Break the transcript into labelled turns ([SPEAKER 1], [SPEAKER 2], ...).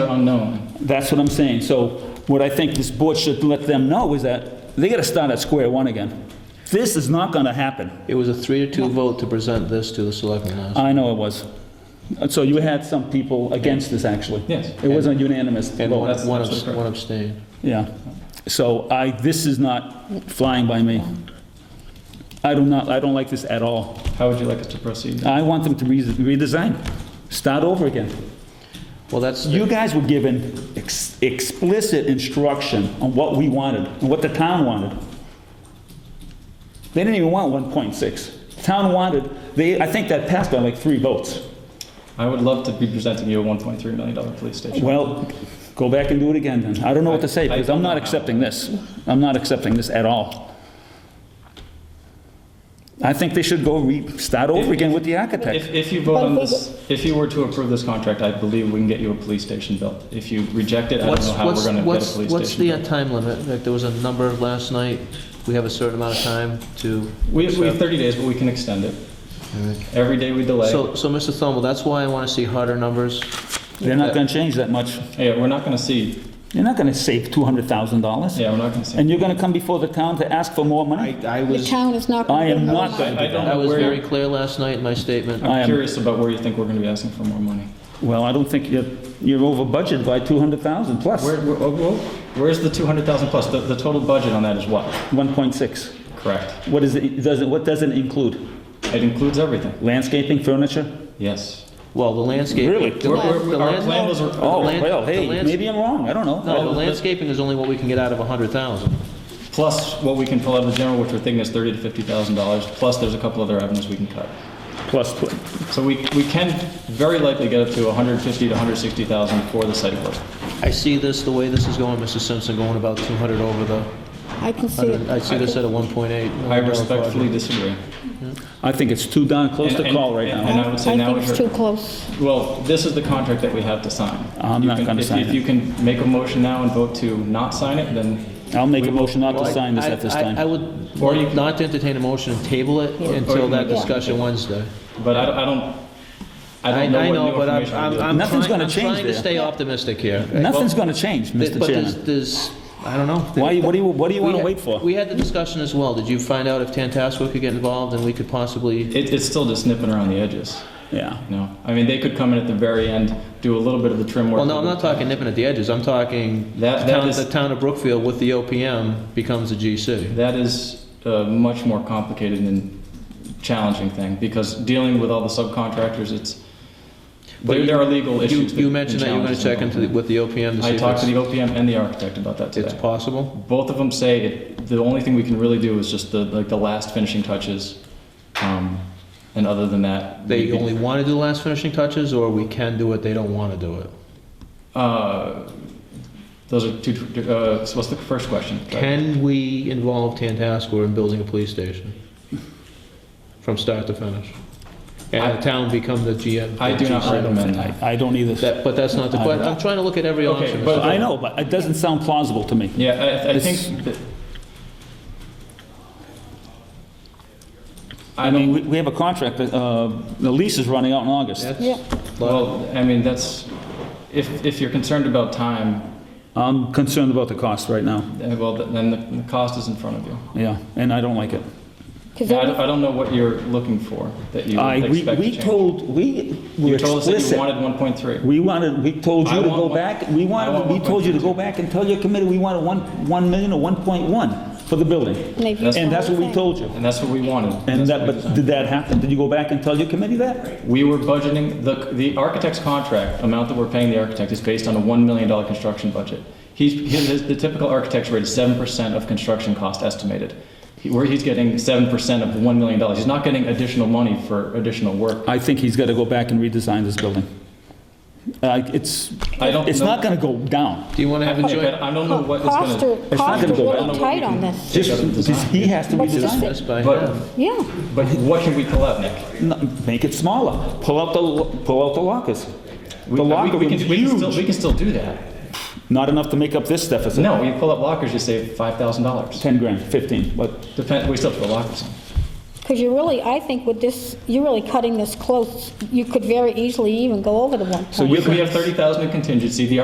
[SPEAKER 1] them know.
[SPEAKER 2] That's what I'm saying. So what I think this board should let them know is that they gotta start at square one again. This is not gonna happen.
[SPEAKER 3] It was a three to two vote to present this to the selectmen
[SPEAKER 1] Uh,
[SPEAKER 3] last.
[SPEAKER 2] I know it was. And So you had some people against this, actually.
[SPEAKER 1] Yes.
[SPEAKER 2] It wasn't unanimous
[SPEAKER 3] And one
[SPEAKER 2] vote,
[SPEAKER 1] that's
[SPEAKER 3] one
[SPEAKER 1] absolutely
[SPEAKER 3] abs- one abstained.
[SPEAKER 2] yeah. So I, this is not flying by me. I do not, I don't like this at all.
[SPEAKER 1] How would you like us to proceed?
[SPEAKER 2] I want them to re- redesign, start over again.
[SPEAKER 3] Well, that's,
[SPEAKER 2] You guys were given ex- explicit instruction on what we wanted, and what the town wanted. They didn't even want 1.6. The Town wanted, they, I think that passed by like three votes.
[SPEAKER 1] I would love to be presenting you a $1.3 million police station.
[SPEAKER 2] Well, go back and do it again then. I don't know what to say, because I'm not accepting this. I'm not accepting this at all. I think they should go re, start over again with the architect.
[SPEAKER 1] If, if you vote on this, if you were to approve this contract, I believe we can get you a police station built. If you reject it, I don't
[SPEAKER 3] what's,
[SPEAKER 1] know how we're
[SPEAKER 3] what's,
[SPEAKER 1] gonna get a
[SPEAKER 3] what's,
[SPEAKER 1] police
[SPEAKER 3] what's
[SPEAKER 1] station
[SPEAKER 3] the
[SPEAKER 1] built.
[SPEAKER 3] uh, time limit? Like, there was a number last night, we have a certain amount of time to.
[SPEAKER 1] We have, we have 30 days, but we can extend it. Every day we delay,
[SPEAKER 3] So, so Mr. Thomo, that's why I want to see harder numbers.
[SPEAKER 2] They're not gonna change that much.
[SPEAKER 1] yeah, we're not gonna see,
[SPEAKER 2] You're not gonna save $200,000.
[SPEAKER 1] yeah, we're not gonna see.
[SPEAKER 2] And you're going to come before the town to ask for more money?
[SPEAKER 3] I
[SPEAKER 4] The town is not.
[SPEAKER 2] I am not
[SPEAKER 1] I
[SPEAKER 2] going
[SPEAKER 1] I
[SPEAKER 2] to do
[SPEAKER 1] don't
[SPEAKER 2] that.
[SPEAKER 3] I
[SPEAKER 1] know
[SPEAKER 3] was
[SPEAKER 1] where, Uh,
[SPEAKER 3] very
[SPEAKER 1] you're-
[SPEAKER 3] clear last night in my statement.
[SPEAKER 2] I
[SPEAKER 1] I'm
[SPEAKER 2] am-
[SPEAKER 1] curious about where you think we're gonna be asking for more money.
[SPEAKER 2] Well, I don't think you're, you're over budget by 200,000 plus
[SPEAKER 1] Where, where- oh, whoa, where's the 200,000 plus? The, the total budget on that is what?
[SPEAKER 2] 1.6.
[SPEAKER 1] Correct.
[SPEAKER 2] What is it, does it, what does it include?
[SPEAKER 1] It includes everything,
[SPEAKER 2] Landscaping, furniture?
[SPEAKER 1] yes.
[SPEAKER 3] Well, the landscape.
[SPEAKER 2] Really?
[SPEAKER 3] the
[SPEAKER 1] We're-
[SPEAKER 3] land-
[SPEAKER 1] we're-
[SPEAKER 3] the
[SPEAKER 1] our
[SPEAKER 3] land-
[SPEAKER 1] plan was-
[SPEAKER 3] the
[SPEAKER 2] Oh,
[SPEAKER 3] land-
[SPEAKER 2] well,
[SPEAKER 3] the
[SPEAKER 2] hey,
[SPEAKER 3] lands-
[SPEAKER 2] maybe I'm wrong, I don't know.
[SPEAKER 3] No, the landscaping is only what we can get out of a hundred thousand.
[SPEAKER 1] Plus what we can pull out of the general, which we're thinking is thirty to fifty thousand dollars, plus there's a couple other avenues we can cut.
[SPEAKER 2] Plus, tw-
[SPEAKER 1] So we, we can very likely get up to a hundred fifty to hundred sixty thousand for the site work.
[SPEAKER 3] I see this, the way this is going, Mr. Simpson, going about two hundred over the,
[SPEAKER 4] I can see it.
[SPEAKER 3] I see this at a one point eight.
[SPEAKER 1] I respectfully disagree.
[SPEAKER 2] I think it's too darn close
[SPEAKER 1] And-
[SPEAKER 2] to
[SPEAKER 1] and-
[SPEAKER 2] call right
[SPEAKER 1] and-
[SPEAKER 2] now.
[SPEAKER 1] and I would say now
[SPEAKER 4] think
[SPEAKER 1] is
[SPEAKER 4] it's
[SPEAKER 1] your-
[SPEAKER 4] too close.
[SPEAKER 1] Well, this is the contract that we have to sign.
[SPEAKER 2] I'm
[SPEAKER 1] You
[SPEAKER 2] not
[SPEAKER 1] can-
[SPEAKER 2] gonna
[SPEAKER 1] if-
[SPEAKER 2] sign
[SPEAKER 1] If
[SPEAKER 2] it.
[SPEAKER 1] you can make a motion now and vote to not sign it, then,
[SPEAKER 2] I'll make a motion not to sign this
[SPEAKER 3] I-
[SPEAKER 2] at this
[SPEAKER 3] I- I
[SPEAKER 2] time.
[SPEAKER 3] would
[SPEAKER 1] Or you-
[SPEAKER 3] not to entertain a motion and table it until
[SPEAKER 1] you
[SPEAKER 3] that
[SPEAKER 1] can-
[SPEAKER 3] discussion Wednesday.
[SPEAKER 1] but I don't, I don't, I
[SPEAKER 3] I
[SPEAKER 1] don't know
[SPEAKER 3] I
[SPEAKER 1] what
[SPEAKER 3] know,
[SPEAKER 1] new
[SPEAKER 3] but I'm,
[SPEAKER 1] information
[SPEAKER 3] I'm
[SPEAKER 1] will
[SPEAKER 3] I'm
[SPEAKER 2] Nothing's
[SPEAKER 3] trying,
[SPEAKER 2] gonna
[SPEAKER 3] I'm
[SPEAKER 2] change
[SPEAKER 3] trying to
[SPEAKER 2] there.
[SPEAKER 3] stay optimistic here.
[SPEAKER 2] Nothing's going to change,
[SPEAKER 3] Th-
[SPEAKER 2] Mr.
[SPEAKER 3] But there's,
[SPEAKER 2] Chairman.
[SPEAKER 3] there's, I don't know.
[SPEAKER 2] Why, what do you, what do you
[SPEAKER 3] We
[SPEAKER 2] want to
[SPEAKER 3] had-
[SPEAKER 2] wait for?
[SPEAKER 3] We had the discussion as well. Did you find out if Tantascwa could get involved and we could possibly?
[SPEAKER 1] be. It, it's still just nipping around the edges,
[SPEAKER 2] Yeah.
[SPEAKER 1] you know? I mean, they could come in at the very end, do a little bit of the trim work.
[SPEAKER 3] Well, no, I'm not talking nipping at the edges. I'm talking
[SPEAKER 1] That- that
[SPEAKER 3] town-
[SPEAKER 1] is-
[SPEAKER 3] the town of Brookfield with the OPM becomes a GC.
[SPEAKER 1] That is a much more complicated and challenging thing because dealing with all the subcontractors, it's,
[SPEAKER 3] But
[SPEAKER 1] there,
[SPEAKER 3] you-
[SPEAKER 1] there are legal
[SPEAKER 3] You,
[SPEAKER 1] issues. that-
[SPEAKER 3] you
[SPEAKER 1] and
[SPEAKER 3] mentioned that you're going to
[SPEAKER 1] challenges
[SPEAKER 3] check into, the-
[SPEAKER 1] involved.
[SPEAKER 3] with the OPM to see
[SPEAKER 1] I talked to
[SPEAKER 3] if
[SPEAKER 1] the OPM and the architect about that
[SPEAKER 3] it's, it's
[SPEAKER 1] today.
[SPEAKER 3] possible.
[SPEAKER 1] Both of them say it, the only thing we can really do is just the, like the last finishing touches. Um, and other than that.
[SPEAKER 3] They
[SPEAKER 1] we-
[SPEAKER 3] only want to do the last finishing touches, or we can do it, they don't want to do it?
[SPEAKER 1] Uh, those are two, uh, so what's the first question?
[SPEAKER 3] Can we involve Tantascwa in building a police station? From start to finish? And the town become the GM?
[SPEAKER 1] I do not recommend that.
[SPEAKER 2] I don't either.
[SPEAKER 3] That, but that's not the
[SPEAKER 2] I-
[SPEAKER 3] question, I'm trying to look at every
[SPEAKER 1] Okay,
[SPEAKER 3] option.
[SPEAKER 1] but-
[SPEAKER 3] Mr.
[SPEAKER 2] I know, but it doesn't sound plausible to me.
[SPEAKER 1] Yeah, I, I
[SPEAKER 2] It's-
[SPEAKER 1] think that.
[SPEAKER 2] I mean, we- we have a contract, that, uh, the lease is running out in August.
[SPEAKER 3] That's-
[SPEAKER 4] Yeah.
[SPEAKER 1] Well, I mean, that's, if, if you're concerned about time,
[SPEAKER 2] I'm concerned about the cost right now,
[SPEAKER 1] eh, well, th- then the the cost is in front of you.
[SPEAKER 2] yeah, and I don't like it.
[SPEAKER 4] 'Cause
[SPEAKER 1] I
[SPEAKER 4] that-
[SPEAKER 1] don't, I don't know what you're looking for, that you
[SPEAKER 2] I,
[SPEAKER 1] expect
[SPEAKER 2] we,
[SPEAKER 1] to
[SPEAKER 2] we
[SPEAKER 1] change.
[SPEAKER 2] told, we were
[SPEAKER 1] You told us that you
[SPEAKER 2] explicit.
[SPEAKER 1] wanted 1.3.
[SPEAKER 2] We wanted, we told
[SPEAKER 1] I
[SPEAKER 2] you to
[SPEAKER 1] want
[SPEAKER 2] go
[SPEAKER 1] one-
[SPEAKER 2] back, we
[SPEAKER 1] I want
[SPEAKER 2] wanted, we told you to go back and tell your committee we wanted one, 1 million or 1.1 for the building.
[SPEAKER 4] And they've
[SPEAKER 1] That's-
[SPEAKER 4] used
[SPEAKER 2] And that's what we
[SPEAKER 4] everything.
[SPEAKER 2] told you.
[SPEAKER 1] And that's what we wanted.
[SPEAKER 2] And
[SPEAKER 1] That's
[SPEAKER 2] that,
[SPEAKER 1] what we
[SPEAKER 2] but
[SPEAKER 1] designed.
[SPEAKER 2] did that happen? Did you go back and tell your committee that?
[SPEAKER 1] We were budgeting, the, the architect's contract amount that we're paying the architect is based on a $1 million construction budget. He's, his, the typical architect's rate is 7% of construction cost estimated. He- Where he's getting 7% of $1 million. He's not getting additional money for additional work.
[SPEAKER 2] I think he's gotta go back and redesign this building. Uh, it's,
[SPEAKER 1] I don't
[SPEAKER 2] it's
[SPEAKER 1] know-
[SPEAKER 2] not gonna go down.
[SPEAKER 3] Do you want to have a
[SPEAKER 1] I
[SPEAKER 3] joint?
[SPEAKER 1] I don't know what is gonna.
[SPEAKER 4] Costs are,
[SPEAKER 2] not
[SPEAKER 4] costs
[SPEAKER 2] gonna
[SPEAKER 4] are
[SPEAKER 2] go
[SPEAKER 1] down.
[SPEAKER 4] really tight on this.
[SPEAKER 2] Just,
[SPEAKER 1] gotta design.
[SPEAKER 2] just- he has to
[SPEAKER 4] But just-
[SPEAKER 2] redesign it.
[SPEAKER 3] Just by
[SPEAKER 1] But-
[SPEAKER 3] half.
[SPEAKER 4] Yeah,
[SPEAKER 1] But what can we pull out, Nick?
[SPEAKER 2] No, Make it smaller. Pull out the, lo- pull out the lockers. The locker
[SPEAKER 1] we, we,
[SPEAKER 2] room's
[SPEAKER 1] can, we, can still, we
[SPEAKER 2] huge.
[SPEAKER 1] can still do that.
[SPEAKER 2] Not enough to make up this deficit.
[SPEAKER 1] No, you pull up lockers, you save five thousand dollars.
[SPEAKER 2] 10 grand, 15, but
[SPEAKER 1] Depend. We still have to put lockers. in.
[SPEAKER 4] because you're really, I think with this, you're really cutting this close. You could very easily even go over the one point.
[SPEAKER 2] So
[SPEAKER 1] We, we have thirty thousand in contingency. The